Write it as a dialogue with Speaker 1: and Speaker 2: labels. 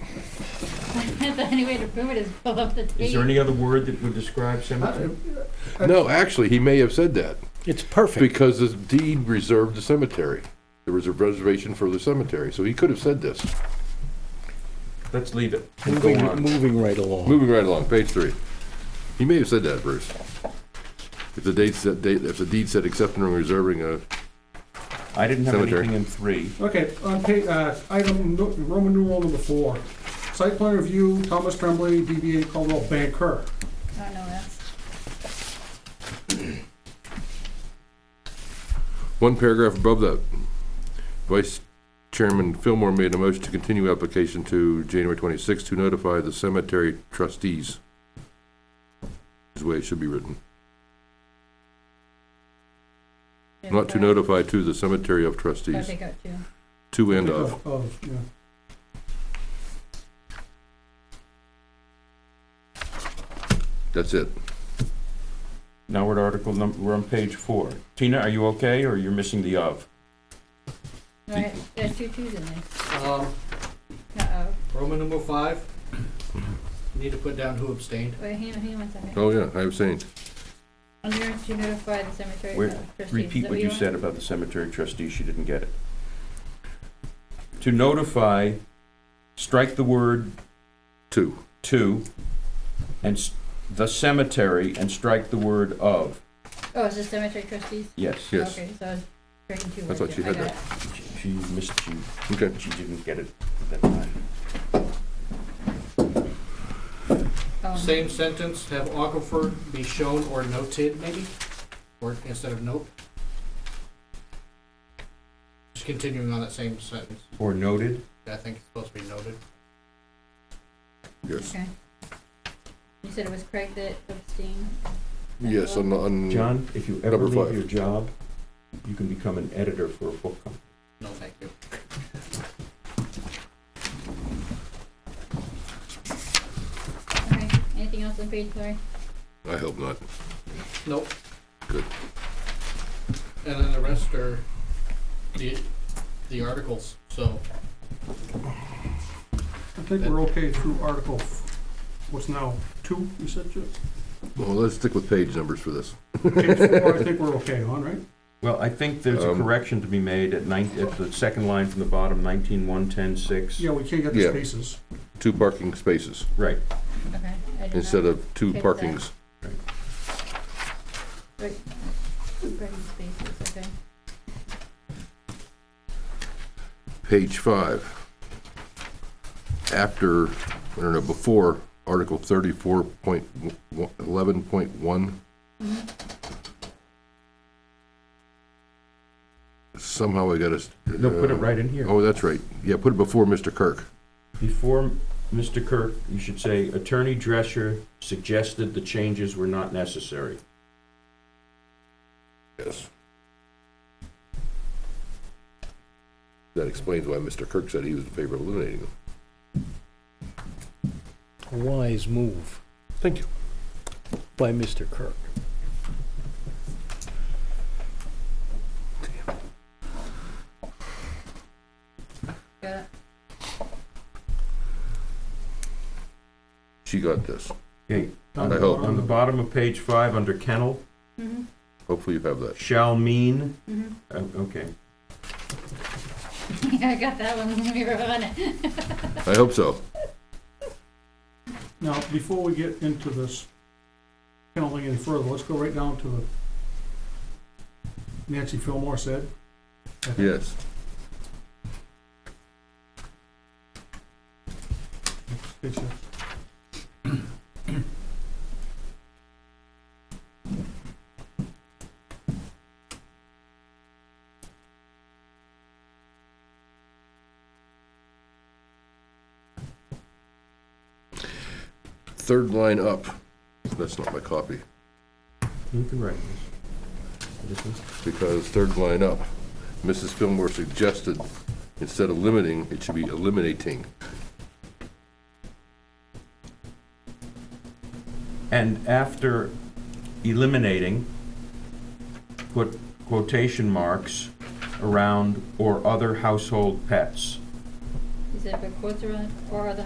Speaker 1: The only way to prove it is pull up the tape.
Speaker 2: Is there any other word that would describe cemetery?
Speaker 3: No, actually, he may have said that
Speaker 4: It's perfect.
Speaker 3: because the deed reserved the cemetery. There was a reservation for the cemetery, so he could have said this.
Speaker 2: Let's leave it and go
Speaker 4: Moving,
Speaker 2: on.
Speaker 4: moving right along.
Speaker 3: Moving right along, page three. He may have said that, Bruce. If the date said, date- if the deed said accepting and reserving a,
Speaker 2: I didn't have
Speaker 3: Cemetery.
Speaker 2: anything in three.
Speaker 5: Okay, on pa, uh, item, nu- Roman numeral number four, site plan review, Thomas Tremblay, DBA Caldwell Banker.
Speaker 1: Oh, no, that's,
Speaker 3: one paragraph above that, Vice Chairman Fillmore made a motion to continue application to January twenty-sixth to notify the cemetery trustees. Is the way it should be written. Not to notify to the cemetery of
Speaker 1: I
Speaker 3: trustees,
Speaker 1: think I do.
Speaker 3: to and of.
Speaker 5: Of, yeah.
Speaker 3: That's it.
Speaker 2: Now we're at article number, we're on page four. Tina, are you okay, or you're missing the of?
Speaker 1: Right, there's two twos in there.
Speaker 6: Um,
Speaker 1: Uh-oh,
Speaker 6: Roman numeral five, need to put down who abstained.
Speaker 1: wait, hang on, hang on one second.
Speaker 3: Oh, yeah, I was saying,
Speaker 1: On the urge to notify the cemetery
Speaker 2: Wait,
Speaker 1: of trustees. Is
Speaker 2: Repeat
Speaker 1: that
Speaker 2: what you
Speaker 1: want?
Speaker 2: said about the cemetery trustee, she didn't get it. To notify, strike the word
Speaker 3: two.
Speaker 2: to, and s- the cemetery, and strike the word of.
Speaker 1: Oh, is this cemetery trustees?
Speaker 2: Yes.
Speaker 3: Yes.
Speaker 1: Okay, so I was breaking two
Speaker 3: I
Speaker 1: words.
Speaker 3: thought
Speaker 1: there.
Speaker 3: you had
Speaker 1: got
Speaker 3: that.
Speaker 1: it.
Speaker 2: She- She missed, she,
Speaker 3: Okay.
Speaker 2: she didn't get it at that time.
Speaker 1: Um,
Speaker 6: Same sentence, have aquifer be shown or noted maybe, or instead of note. Just continuing on that same sentence,
Speaker 2: Or noted?
Speaker 6: I think it's supposed to be noted.
Speaker 3: Yes.
Speaker 1: Okay. You said it was Craig that abstained?
Speaker 3: Yes, on, on.
Speaker 2: John, if you ever
Speaker 3: Number
Speaker 2: leave
Speaker 3: five.
Speaker 2: your job, you can become an editor for a book company.
Speaker 6: No, thank you.
Speaker 1: Okay, anything else on page three?
Speaker 3: I hope not.
Speaker 6: Nope.
Speaker 3: Good.
Speaker 6: And then the rest are the, the articles, so
Speaker 5: I think we're okay through article, f- what's now, two, you said, Chip?
Speaker 3: Well, let's stick with page numbers for this.
Speaker 5: Page four, I think we're okay on, right?
Speaker 2: Well, I think there's a
Speaker 3: Um,
Speaker 2: correction to be made at nine, at the second line from the bottom, nineteen, one, ten, six.
Speaker 5: Yeah, we can't get
Speaker 3: Yeah.
Speaker 5: the spaces.
Speaker 3: Two parking spaces
Speaker 2: Right,
Speaker 1: Okay. I did not-
Speaker 3: instead of two
Speaker 1: Fix that.
Speaker 3: parkings.
Speaker 1: Wait, Craig's spaces, okay.
Speaker 3: Page five. After, I don't know, before Article thirty-four point eleven point one.
Speaker 2: Mm-hmm.
Speaker 3: Somehow I got us.
Speaker 2: no, put it right in here.
Speaker 3: Oh, that's right. Yeah, put it before Mr. Kirk.
Speaker 2: Before Mr. Kirk, you should say Attorney Drescher suggested the changes were not necessary.
Speaker 3: Yes. That explains why Mr. Kirk said he was in favor of eliminating them.
Speaker 4: Wise move
Speaker 3: Thank you.
Speaker 4: by Mr. Kirk.
Speaker 1: Got it.
Speaker 3: She got this.
Speaker 2: Okay,
Speaker 3: I hope.
Speaker 2: on the bottom of page five, under kennel,
Speaker 1: Mm-hmm,
Speaker 3: Hopefully you have that.
Speaker 2: shall mean,
Speaker 1: mm-hmm.
Speaker 2: uh, okay.
Speaker 1: Yeah, I got that one when we were on it.
Speaker 3: I hope so.
Speaker 5: Now, before we get into this penalty any further, let's go right down to the Nancy Fillmore said. I think
Speaker 3: Yes.
Speaker 5: it's- it's-
Speaker 3: Third line up. That's not my copy,
Speaker 2: You can write this. This one?
Speaker 3: because third line up, Mrs. Fillmore suggested, instead of limiting, it should be eliminating.
Speaker 2: And after eliminating, put quotation marks around or other household pets.
Speaker 1: He said, but quotes around, or the